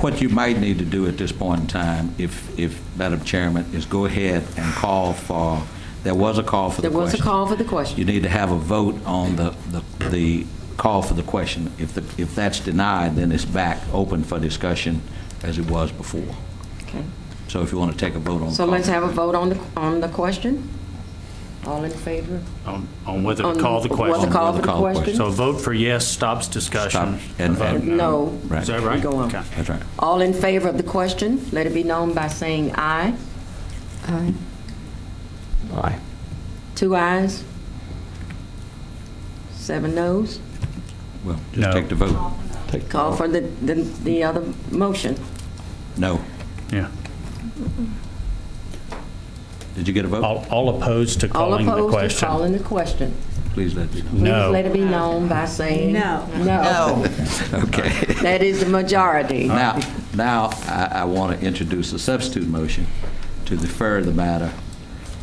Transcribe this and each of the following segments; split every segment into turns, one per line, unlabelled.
What you might need to do at this point in time, if, if, Madam Chairman, is go ahead and call for, there was a call for the
There
question.
was a call for the
You
question.
need to have a vote on the, the, the call for the question. If, the if that's denied, then it's back open for discussion as it was before.
Okay.
So if you want to take a vote on.
So let's have a vote on the, on the question? All in favor?
on on whether
On
to call the
what
question.
to call for the
Call the
question?
So a vote for yes stops discussion.
Stop.
A
And-
vote
and-
No.
Right.
Is that right?
Go on.
Okay.
That's right.
All in favor of the question, let it be known by saying aye.
Aye.
Aye.
Two ayes, seven noes.
Well,
No.
just take the vote.
Take the
Call
vote.
for the, the the other motion.
No.
Yeah.
Did you get a vote?
All all opposed to
All
calling the
opposed to
question.
calling the question.
Please let me know.
Please
No.
let it be known by saying.
No.
No.
Okay.
That is the majority.
Now, now I, I want to introduce a substitute motion to defer the matter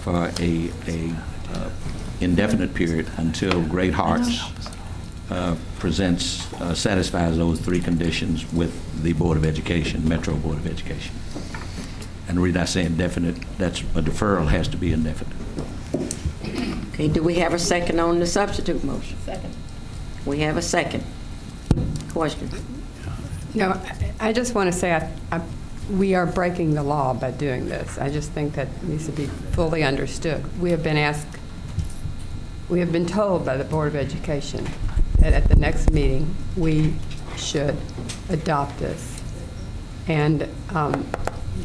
for a, a uh, indefinite period until Great Hearts uh, presents, uh, satisfies those three conditions with the Board of Education, Metro Board of Education. And the reason I say indefinite, that's, a deferral has to be indefinite.
Okay, do we have a second on the substitute motion? Second. We have a second. Question.
No, I- I just want to say, I- I- we are breaking the law by doing this. I just think that needs to be fully understood. We have been asked, we have been told by the Board of Education that at the next meeting, we should adopt this. And, um,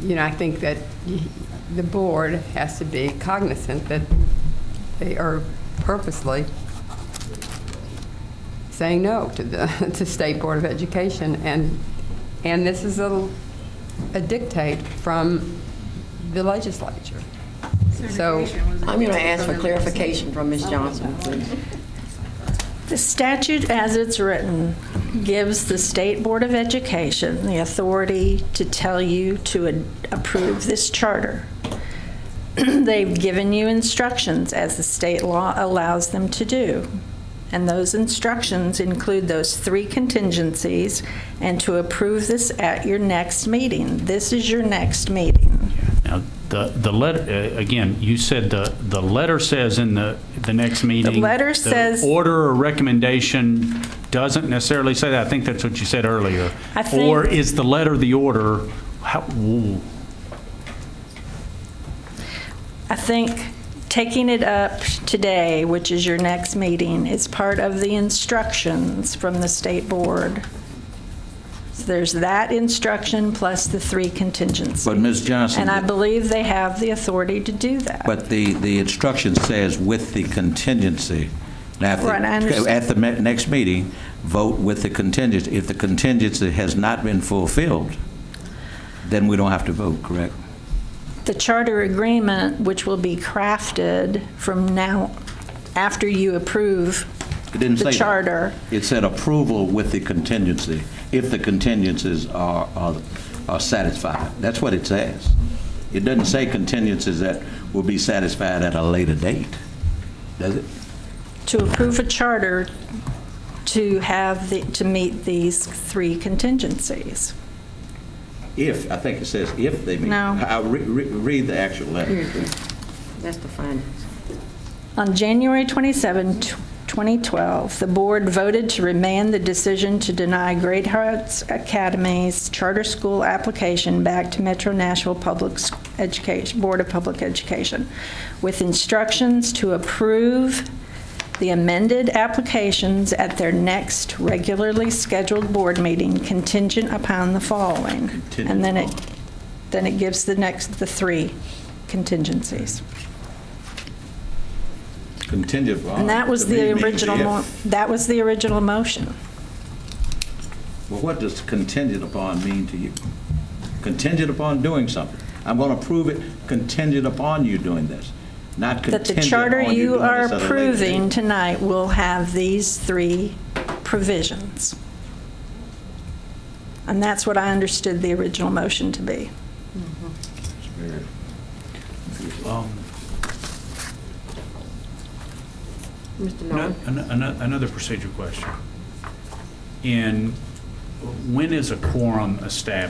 you know, I think that y- the board has to be cognizant that they are purposely saying no to the to State Board of Education, and and this is a, a dictate from the legislature. So
I'm going to ask for clarification from Ms. Johnson, please.
The statute as it's written gives the State Board of Education the authority to tell you to ad- approve this charter. They've given you instructions as the state law allows them to do. And those instructions include those three contingencies and to approve this at your next meeting. This is your next meeting.
Now, the, the letter, again, you said the, the letter says in the, the next meeting.
letter says-
The order or recommendation doesn't necessarily say that. I think that's what you said earlier.
I think-
Or is the letter the order? How, ooh.
I think taking it up today, which is your next meeting, is part of the instructions from the state board. So there's that instruction plus the three contingencies.
But Ms. Johnson-
And I believe they have the authority to do that.
But the, the instruction says with the contingency. Now, if the-
Right, I understand.
At the me- next meeting, vote with the contingency. If the contingency has not been fulfilled, then we don't have to vote, correct?
The charter agreement, which will be crafted from now, after you approve
It didn't say
the
that.
charter.
It said approval with the contingency, if the contingencies are, are are satisfied. That's what it says. It doesn't say contingencies that will be satisfied at a later date, does it?
to approve a charter to have, the- to meet these three contingencies.
If, I think it says if they meet.
No.
I- I re- re- Read the actual letter.
That's the findings.
On January 27, tw- 2012, the board voted to remand the decision to deny Great Hearts Academy's charter school application back to Metro Nashville Public S- Education, Board of Public Education, with instructions to approve the amended applications at their next regularly scheduled board meeting contingent upon the following. And then it, then it gives the next, the three contingencies.
Contingent upon.
And that was
To me,
the
means
original,
if.
mo- that was the original motion.
Well, what does contingent upon mean to you? Contingent upon doing something. I'm going to approve it contingent upon you doing this, not
That the
contingent
charter
on you
you
doing
are
this at a later date.
approving tonight will have these three provisions. And that's what I understood the original motion to be.
um,
Mr.
Ano-
Norman?
ano- ano- Another procedure question. In, when is a quorum established?